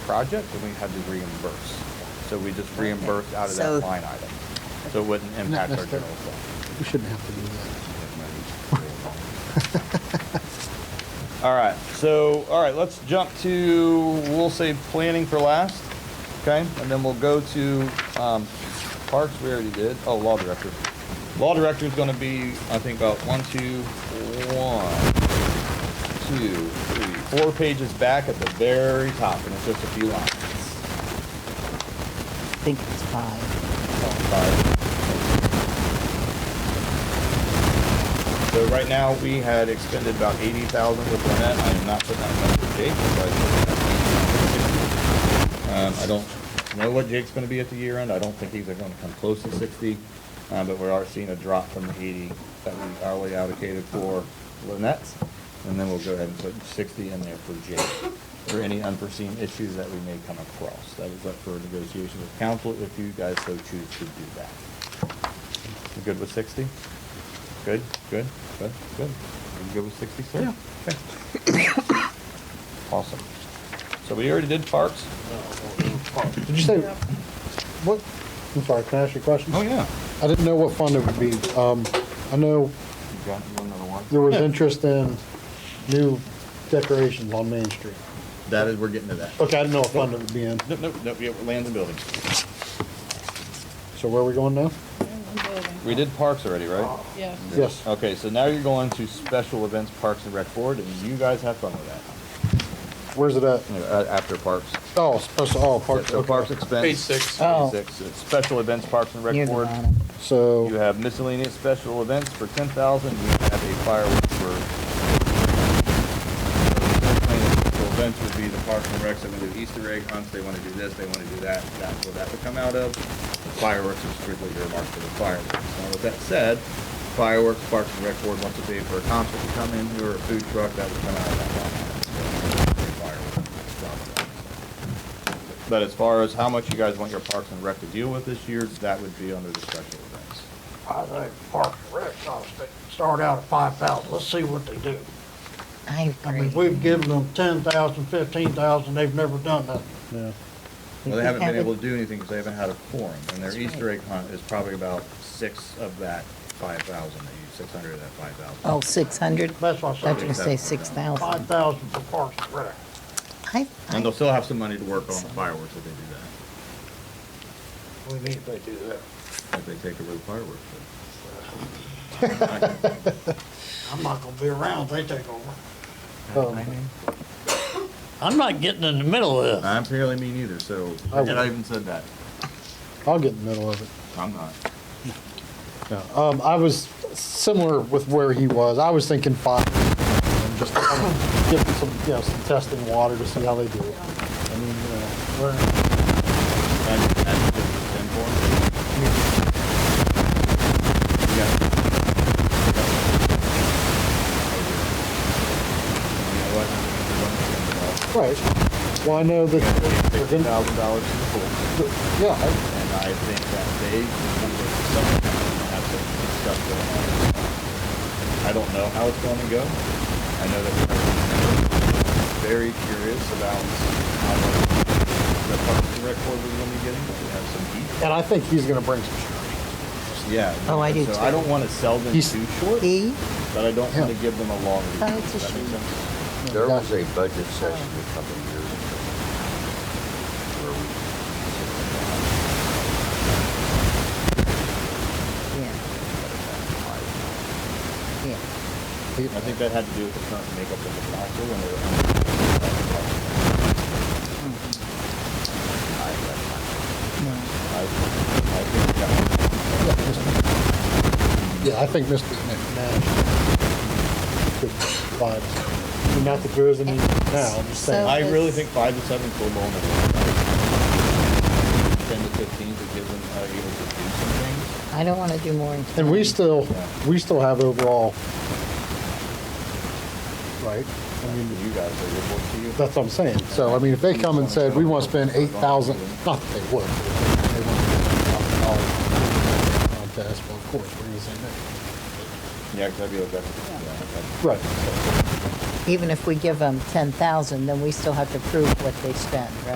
project, and we had to reimburse. So we just reimbursed out of So- that line item. So it wouldn't impact our general necessarily. fund. We shouldn't have to do that. All right, so, all right, let's jump to, we'll say planning for last, okay? And then we'll go to um, parks, we already did, oh, law director. Law director is gonna be, I think, about one, two, one, two, three, four pages back at the very top, and it's just a few lines. I think it's five. So right now, we had expended about eighty thousand with Lynette. I am not putting that in for Jake. but I put that in for 60. Um, I don't know what Jake's gonna be at the year end. I don't think he's gonna come close to sixty. Uh, but we are seeing a drop from the eighty that we hourly allocated for Lynette. And then we'll go ahead and put sixty in there for Jake for any unforeseen issues that we may come across. That is up for negotiation with council if you guys so choose to do that. You good with sixty? Good, good, good, good. You good with sixty, sir? Yeah. Awesome. So we already did parks? Did you say, what, I'm sorry, can I ask you a question? yeah. I didn't know what fund it would be. Um, I know You got another one? there was interest in new decorations on Main Street. That is, we're getting to that. Okay, I didn't know what fund it would be in. Nope, nope, nope, yeah, lands and buildings. So where are we going now? We did parks already, right? Yes. Yes. Okay, so now you're going to special events, parks and rec board, and you guys have fun with that. Where's it at? You know, a- After parks. Oh, special, oh, parks, So parks okay. expense. Page six. Oh. Page six, it's special events, parks and You're rec the board. bottom. You So, have miscellaneous special events for ten thousand, you have a fireworks for. Miscellaneous special Events would be the parks and recs, they wanna do Easter egg hunts, they wanna do this, they wanna do that, that's where that would come out of. Fireworks are strictly earmarked for the fireworks. Now, with that said, fireworks, parks and rec board wants to pay for a concert to come in, or a food truck, that would come out of that. line item. But as far as how much you guys want your parks and rec to deal with this year, that would be under the special events. I think Park and Rec ought to start out at five thousand, let's see what they do. I I mean, agree. we've given them ten thousand, fifteen thousand, they've never done nothing. yeah. Well, they haven't been haven't- able to do anything because they haven't had a quorum, and their Easter egg hunt is probably about six of that five thousand, they use six hundred of that five thousand. Oh, 600? I That's what was I going to said, say five 6,000. thousand for Park and Rec. I, And they'll I, still have some money to work on the fireworks if they do We need if they do that. that, if they take over the fireworks. I'm not gonna be around if they take over. Um, I'm not getting in the middle of this. I'm apparently me neither, so, I and I will. even said that, I'll get in the middle of it. I'm not. Yeah, um, I was similar with where he was. I was thinking five, and just kind of give them some, you know, some testing water to see how they do it. I mean, uh, you know, we're- And- and just ten for it. Yeah. You know what? right. Well, I know that, Fifty thousand dollars to the pool. yeah, I- And I think that they, someone has to discuss going on. I don't know how it's going to go. I know that we're very curious about how much the Parks and Rec Board is going to be getting. We have some heat. and I think he's gonna bring some. shit. Yeah. Oh, I do So too. I don't want to sell them He's- too short, E? but I don't want to Yeah. give them a long. leash. Oh, it's a Does that make shame. sense? There was a budget session a couple of years ago where we Yeah, yeah. I think that had to do with the current makeup of the council and their. Oh, I, I think that Yeah, I think Mr. McNash could provide, I mean, not that there is any now, I'm just saying. So- I really think five to seven full blown. Ten to fifteen to give them, uh, able to do some things. I don't want to do more. And we still, we still have overall, right? I mean, You guys are your board to you. That's what I'm saying. So, I mean, if they come and said, we want to spend eight thousand, not that they would. they want to spend $8,000 Contest, well, of course, we're gonna say no. Yeah, 'cause that'd be okay. Yeah, Right. Even if we give them 10,000, then we still have to prove what they spend, right?